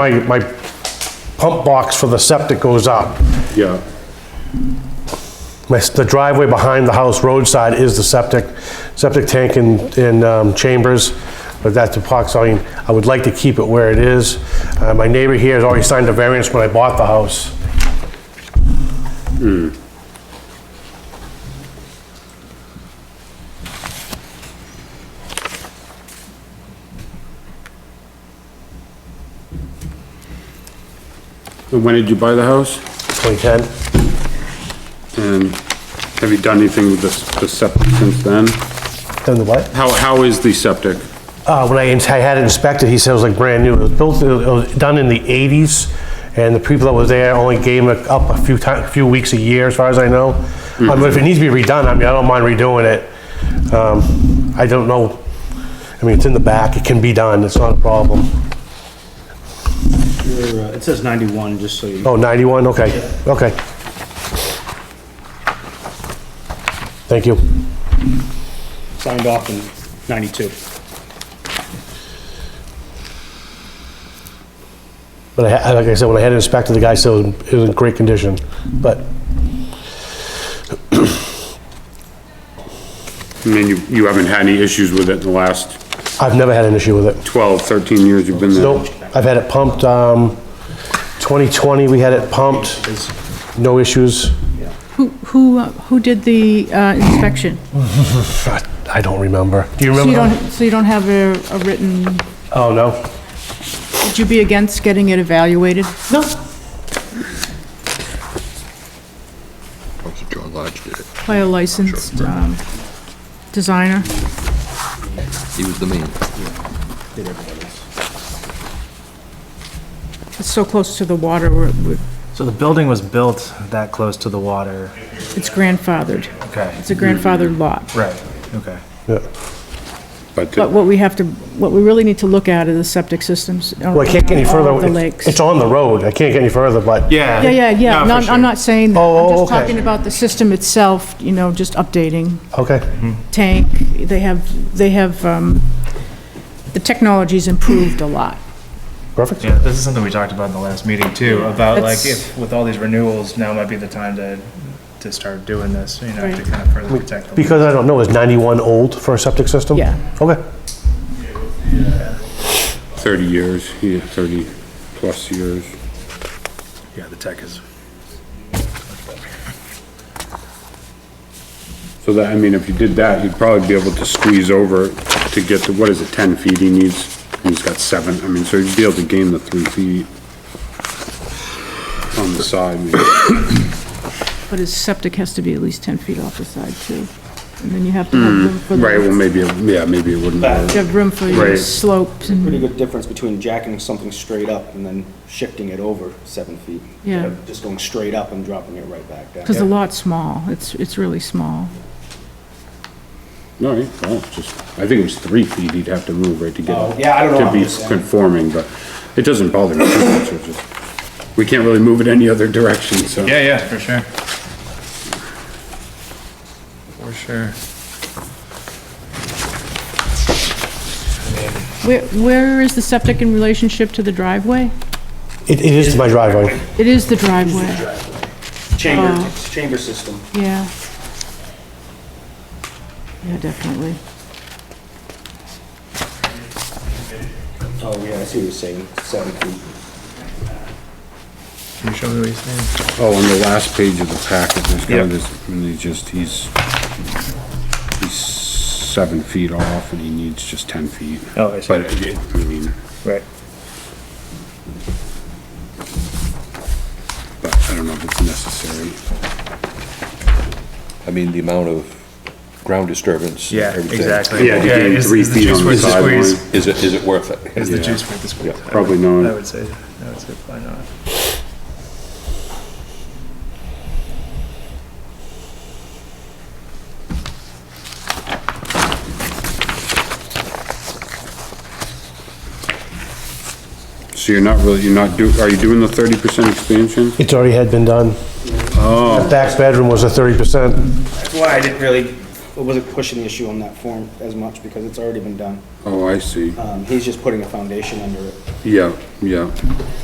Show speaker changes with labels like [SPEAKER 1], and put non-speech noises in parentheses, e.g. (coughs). [SPEAKER 1] my, my pump box for the septic goes up.
[SPEAKER 2] Yeah,
[SPEAKER 1] My s- The driveway behind the house roadside is the septic, septic tank and, and um, chambers, but that's epoxy. I would like to keep it where it is. Uh, My neighbor here has already signed a variance when I bought the house.
[SPEAKER 2] and when did you buy the house?
[SPEAKER 1] 2010.
[SPEAKER 2] And have you done anything with the, the septic since then?
[SPEAKER 1] Then the what?
[SPEAKER 2] How, how is the septic?
[SPEAKER 1] Uh, when I ins- I had it inspected, he said it was like brand new. It was built, it was done in the 80s, and the people that was there only gave it up a few times, a few weeks a year, as far as I know. I mean, if it needs to be redone, I mean, I don't mind redoing it. Um, I don't know, I mean, it's in the back, it can be done, it's not a problem.
[SPEAKER 3] Your, uh, It says 91, just so you,
[SPEAKER 1] Oh, 91, okay, okay. Thank you.
[SPEAKER 3] signed off in 92.
[SPEAKER 1] But I, ha- like I said, when I had it inspected, the guy said it was- it was in great condition, but
[SPEAKER 2] I mean, you, you haven't had any issues with it in the last
[SPEAKER 1] I've never had an issue with it.
[SPEAKER 2] 12, 13 years you've been there?
[SPEAKER 1] Nope, I've had it pumped, um, 2020, we had it pumped, no issues.
[SPEAKER 4] Who, who, uh, who did the uh, inspection?
[SPEAKER 1] I don't remember. Do you
[SPEAKER 4] So you
[SPEAKER 1] remember?
[SPEAKER 4] don't, so you don't have a a written,
[SPEAKER 1] Oh, no.
[SPEAKER 4] would you be against getting it evaluated? No.
[SPEAKER 5] Also, John Lodge did it.
[SPEAKER 4] By a licensed um, designer?
[SPEAKER 5] He was the main.
[SPEAKER 4] It's so close to the water, we're- we're-
[SPEAKER 6] So the building was built that close to the water?
[SPEAKER 4] it's grandfathered.
[SPEAKER 6] Okay.
[SPEAKER 4] It's a grandfathered lot.
[SPEAKER 6] Right, okay.
[SPEAKER 1] Yeah.
[SPEAKER 2] But
[SPEAKER 4] But
[SPEAKER 2] the-
[SPEAKER 4] what we have to, what we really need to look at are the septic systems. uh,
[SPEAKER 1] Well, I can't get any further.
[SPEAKER 4] The
[SPEAKER 1] It's-
[SPEAKER 4] lakes.
[SPEAKER 1] It's on the road, I can't get any further, but.
[SPEAKER 6] Yeah.
[SPEAKER 4] Yeah, yeah, yeah.
[SPEAKER 6] for
[SPEAKER 4] No, I'm-
[SPEAKER 6] sure.
[SPEAKER 4] I'm not saying that.
[SPEAKER 1] Oh, oh,
[SPEAKER 4] I'm just
[SPEAKER 1] okay.
[SPEAKER 4] talking about the system itself, you know, just updating.
[SPEAKER 1] Okay,
[SPEAKER 6] Mm-hmm.
[SPEAKER 4] tank, they have, they have, um, the technology's improved a lot.
[SPEAKER 1] perfect.
[SPEAKER 6] Yeah, this is something we talked about in the last meeting too, about like
[SPEAKER 4] That's-
[SPEAKER 6] if, with all these renewals, now might be the time to, to start doing this, you know, to
[SPEAKER 4] Right.
[SPEAKER 6] kind of further protect the.
[SPEAKER 1] Because I don't know, is 91 old for a septic system?
[SPEAKER 4] Yeah.
[SPEAKER 1] Okay,
[SPEAKER 2] 30 years, yeah, 30 plus years.
[SPEAKER 6] Yeah, the tech is.
[SPEAKER 2] So that, I mean, if you did that, you'd probably be able to squeeze over to get to, what is it, 10 feet he needs? He's got seven, I mean, so you'd be able to gain the three feet on the
[SPEAKER 6] (coughs)
[SPEAKER 2] side, maybe.
[SPEAKER 4] But his septic has to be at least 10 feet off the side too. And then you have to have room for,
[SPEAKER 2] Hmm, Right, well,
[SPEAKER 4] the-
[SPEAKER 2] maybe, it- yeah, maybe it wouldn't
[SPEAKER 4] you
[SPEAKER 2] work.
[SPEAKER 4] have room for your
[SPEAKER 2] Right.
[SPEAKER 4] slopes and,
[SPEAKER 3] Pretty good difference between jacking something straight up and then shifting it over seven feet.
[SPEAKER 4] Yeah.
[SPEAKER 3] Instead of Just going straight up and dropping it right back down.
[SPEAKER 4] because the lot's small, it's, it's really small.
[SPEAKER 2] No, well, just, I think it was three feet he'd have to move, right, to get.
[SPEAKER 3] Oh, yeah, I don't know.
[SPEAKER 2] To be conforming, but it doesn't bother me. too much, it's just- We can't really move it any other direction, so.
[SPEAKER 6] Yeah, yeah, for sure. For sure.
[SPEAKER 4] Where, where is the septic in relationship to the driveway?
[SPEAKER 1] it, it is my driveway.
[SPEAKER 4] It is the driveway,
[SPEAKER 3] Chamber, chamber system.
[SPEAKER 4] yeah. Yeah, definitely.
[SPEAKER 3] Oh, yeah, I see what you're saying, seven feet.
[SPEAKER 6] Can you show me what he's saying?
[SPEAKER 2] Oh, on the last page of the packet, there's got this, and he's just, he's, he's seven feet off and he needs just ten feet.
[SPEAKER 6] Oh, I see.
[SPEAKER 2] But, it- I mean,
[SPEAKER 6] Right.
[SPEAKER 2] but I don't know if it's necessary.
[SPEAKER 5] I mean, the amount of ground disturbance. and
[SPEAKER 6] Yeah,
[SPEAKER 5] everything.
[SPEAKER 6] exactly.
[SPEAKER 2] Yeah, to gain
[SPEAKER 6] is-
[SPEAKER 2] three
[SPEAKER 6] is the
[SPEAKER 2] feet
[SPEAKER 6] juice
[SPEAKER 2] on the
[SPEAKER 6] worth
[SPEAKER 2] sideline.
[SPEAKER 6] squeeze?
[SPEAKER 5] Is it, is it worth it?
[SPEAKER 6] Is the
[SPEAKER 2] Yeah.
[SPEAKER 6] juice worth the squeeze?
[SPEAKER 2] Yeah, probably not.
[SPEAKER 6] I would say, I would say probably not.
[SPEAKER 2] So you're not really, you're not do, are you doing the thirty percent expansion?
[SPEAKER 1] It's already had been done. Oh. The back bedroom was a 30%.
[SPEAKER 3] That's why I didn't really I wasn't pushing the issue on that form as much because it's already been done.
[SPEAKER 2] Oh, I see.
[SPEAKER 3] Um, he's just putting a foundation under it.
[SPEAKER 2] Yeah, yeah.